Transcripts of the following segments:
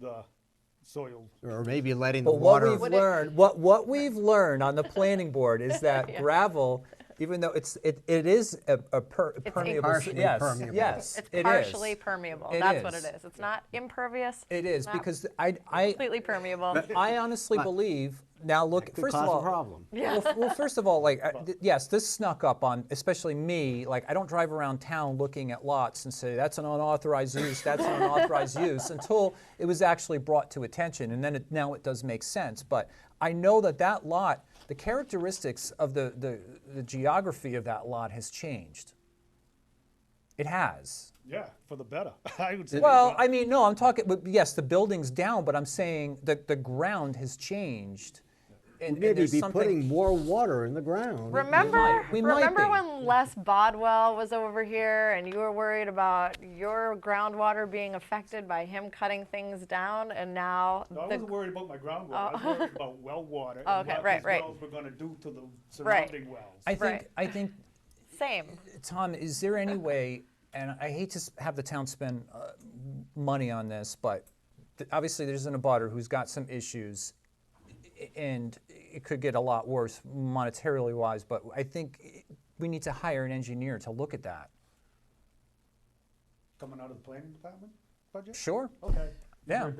the soil. Or maybe letting the But what water, we've learned, what, what we've learned on the planning board is that gravel, even though it's, it, it is a, a per- permeable. s- Partially Yes, permeable. yes, It's it is. partially permeable. It That's what it is. is. It's not impervious. It is, not because I, I, Completely permeable. I honestly believe, now look, could first of cause a all. problem. Well, f- well, first of all, like, I- th- yes, this snuck up on, especially me, like, I don't drive around town looking at lots and say, that's an unauthorized use, that's an unauthorized use, until it was actually brought to attention, and then it, now it does make sense. But I know that that lot, the characteristics of the, the, the geography of that lot has changed. It has. Yeah, for the better. I would say. Well, I mean, no, I'm talking, but yes, the building's down, but I'm saying that the ground has changed. and- and maybe there's be something- putting more water in the ground. Remember, we might remember be. when Les Bodwell was over here and you were worried about your groundwater being affected by him cutting things down, and now No, I the wasn't worried about my groundwater. I was worried about well water Oh, and okay, what right, these right. wells were going to do to the Right. surrounding wells. I think, Right. I think same. Tom, is there any way, and I hate to s- have the town spend uh, money on this, but th- obviously there's an abutter who's got some issues, i- and it could get a lot worse monetarily wise, but I think i- we need to hire an engineer to look at that. Coming out of the planning department budget? Sure, Okay. yeah.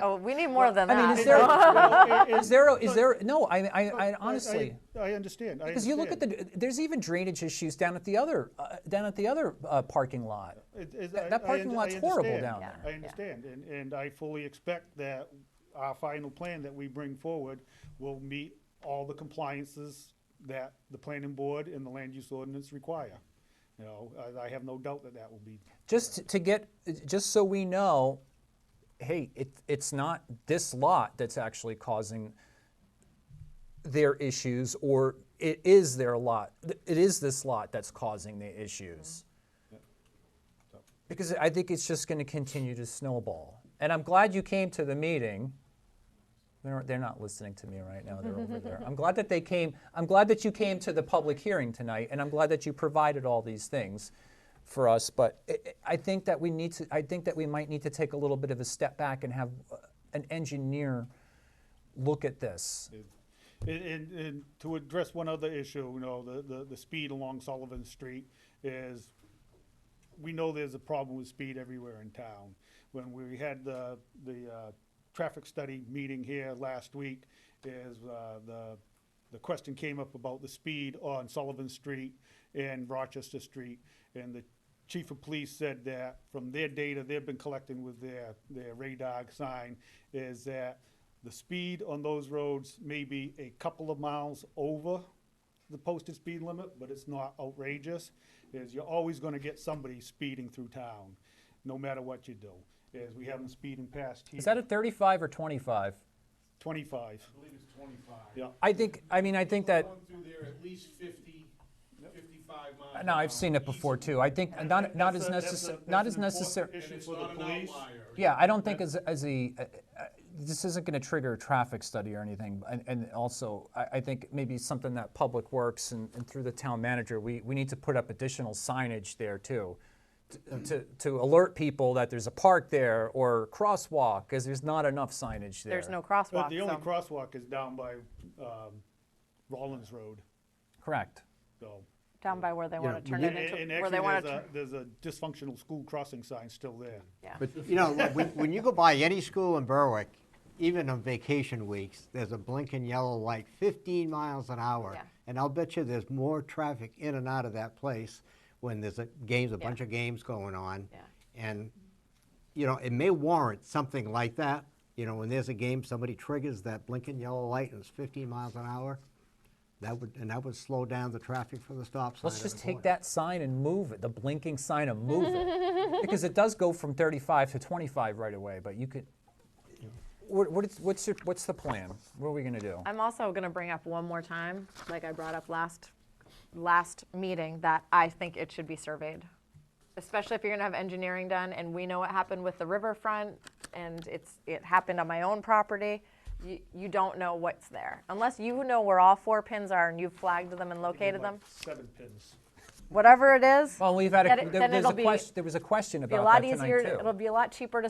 Oh, we need more than I mean, that. is there- Well, it- it- Is there, a- is there, no, I, I, I I- honestly. I understand. I Because you look at understand. the, there's even drainage issues down at the other, uh, down at the other uh, parking lot. It- it- That- I- that I parking under- lot's I horrible understand. down Yeah. I there. understand, and, and I fully expect that our final plan that we bring forward will meet all the compliances that the planning board and the land use ordinance require. You know, I, I have no doubt that that will be, Just t- to get, just so we know, hey, it, it's not this lot that's actually causing their issues, or it is their lot, th- it is this lot that's causing the issues. Because I think it's just gonna continue to snowball. And I'm glad you came to the meeting. They're, they're not listening to me right now, they're over there. I'm glad that they came, I'm glad that you came to the public hearing tonight, and I'm glad that you provided all these things for us, but I- I I think that we need to, I think that we might need to take a little bit of a step back and have uh, an engineer look at this. and, and, and to address one other issue, you know, the, the, the speed along Sullivan Street is we know there's a problem with speed everywhere in town. When we had the, the, uh, traffic study meeting here last week, is, uh, the, the question came up about the speed on Sullivan Street and Rochester Street. And the chief of police said that from their data they've been collecting with their, their radar sign, is that the speed on those roads may be a couple of miles over the posted speed limit, but it's not outrageous, is you're always gonna get somebody speeding through town, no matter what you do. Is we have them speeding past here. Is that a 35 or 25? Twenty-five, I believe it's twenty-five. yeah. I think, I mean, I think that, Going through there at least 50, 55 miles. an no, hour, I've seen it before easily. too. I think not, not That's as a- that's a- necessary, that's not an as important necessary. And Issue it's for the not an police. outlier. Yeah, I don't think as, as a, uh, uh, this isn't gonna trigger a traffic study or anything. And, and also, I, I think maybe something that Public Works and, and through the town manager, we, we need to put up additional signage there too. to- To, to alert people that there's a park there or crosswalk, because there's not enough signage there. There's no But crosswalk. the only so- crosswalk is down by, um, Rollins Road, Correct. so. down by where they want to turn it And- into And where they actually, want there's to. a, there's a dysfunctional school crossing sign still there. yeah. But, you know, look, when, when you go by any school in Berwick, even on vacation weeks, there's a blinking yellow light, 15 miles an hour. Yeah. And I'll bet you there's more traffic in and out of that place when there's a, games, a Yeah. bunch of games going on. Yeah. And, you know, it may warrant something like that. You know, when there's a game, somebody triggers that blinking yellow light and it's 15 miles an hour. That would, and that would slow down the traffic for the stop sign. Let's at just the take corner. that sign and move it, the blinking sign and move it. Because it does go from 35 to 25 right away, but you could, what, what is, what's your, what's the plan? What are we gonna do? I'm also going to bring up one more time, like I brought up last last meeting, that I think it should be surveyed, especially if you're going to have engineering done. And we know what happened with the riverfront, and it's it happened on my own property. You, you don't know what's there unless you know where all four pins are and you've flagged them and located them. Like Seven pins. Whatever it is, Well, we've had, Then a, it- there, then there's it'll a be- question, there was a question it'll be a about lot that tonight easier. too. It'll be a lot cheaper to